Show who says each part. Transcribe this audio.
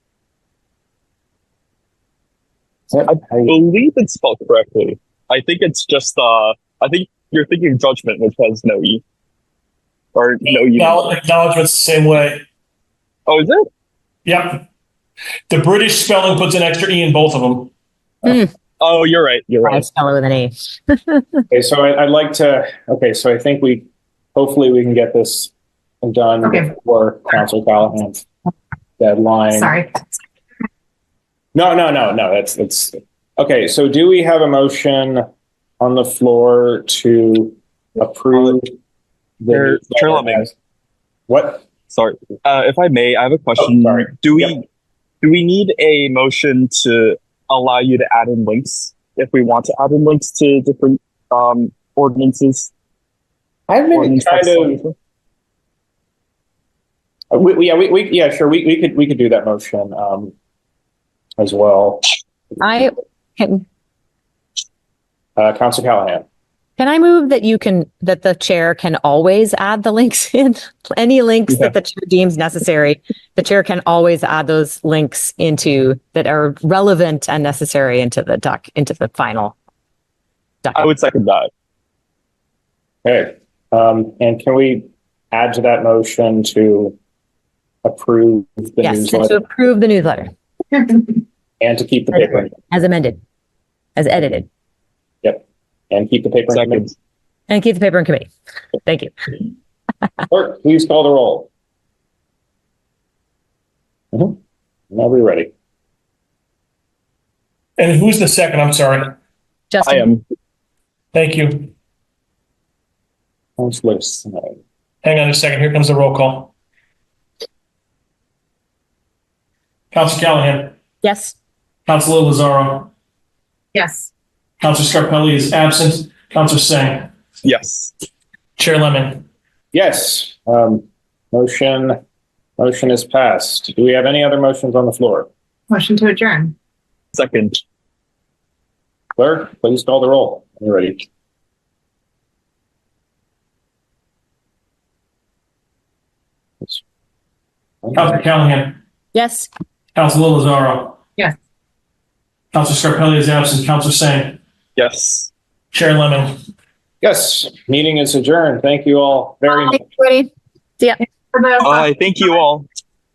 Speaker 1: that
Speaker 2: I
Speaker 1: how you-
Speaker 2: believe it's spelled correctly. I think it's just uh I think you're thinking judgment, which has no E. Or no U.
Speaker 3: Acknowl- Acknowledgements the same way.
Speaker 2: Oh, is it?
Speaker 3: Yep. The British spelling puts an extra E in both of them.
Speaker 2: Oh, you're right. You're
Speaker 4: I
Speaker 2: right.
Speaker 4: spell it with an A.
Speaker 1: Okay, so I, I'd like to, okay, so I think we, hopefully we can get this done
Speaker 5: Okay.
Speaker 1: before Council Callahan's deadline.
Speaker 5: Sorry.
Speaker 1: No, no, no, no, that's, that's, okay, so do we have a motion on the floor to approve? the
Speaker 2: Chair- Chair Lemon.
Speaker 1: What?
Speaker 2: Sorry. Uh, if I may, I have a
Speaker 1: Oh,
Speaker 2: question.
Speaker 1: sorry.
Speaker 2: Do we
Speaker 1: Yep.
Speaker 2: do we need a motion to allow you to add in links if we want to add in links to different um ordinances?
Speaker 1: I've been
Speaker 2: Ordinance
Speaker 1: kind of,
Speaker 2: legislation?
Speaker 1: Uh, We, we- yeah, we, we, yeah, sure, we, we could, we could do that motion, um, as well.
Speaker 4: I can,
Speaker 1: Uh, Council Callahan,
Speaker 4: can I move that you can, that the chair can always add the links in? Any links
Speaker 2: Yeah.
Speaker 4: that the chair deems necessary, the chair can always add those links into, that are relevant and necessary into the doc, into the final.
Speaker 2: I would second that.
Speaker 1: okay, um, and can we add to that motion to approve the
Speaker 4: Yes, and to
Speaker 1: newsletter
Speaker 4: approve the newsletter
Speaker 1: and to keep the paper,
Speaker 4: as amended, as edited,
Speaker 1: and keep the paper? in
Speaker 2: Second.
Speaker 1: committee?
Speaker 4: and keep the paper in committee. Thank you.
Speaker 1: Clerk, please call the roll. Mhm. Now we're ready.
Speaker 3: And who's the second? I'm sorry.
Speaker 2: I
Speaker 4: Justin,
Speaker 2: am.
Speaker 3: Thank you.
Speaker 1: Councilor Snyder.
Speaker 3: Hang on a second. Here comes the roll call. Council Callahan,
Speaker 4: yes?
Speaker 3: Council Lozaro,
Speaker 5: Yes.
Speaker 3: Council Scarpelli is absent. Council Singh,
Speaker 2: Yes.
Speaker 3: Chair Lemon.
Speaker 1: Yes, um, motion, motion is passed. Do we have any other motions on the floor?
Speaker 5: Motion to adjourn.
Speaker 2: Second.
Speaker 1: Clerk, please call the roll. We're ready.
Speaker 3: Council Callahan,
Speaker 4: Yes.
Speaker 3: Council Lozaro.
Speaker 5: Yes.
Speaker 3: Council Scarpelli is absent. Council Singh,
Speaker 2: Yes.
Speaker 3: Chair Lemon.
Speaker 1: Yes, meeting is adjourned. Thank you all very much.
Speaker 4: Ready?
Speaker 5: Hello.
Speaker 2: All right. Thank you all.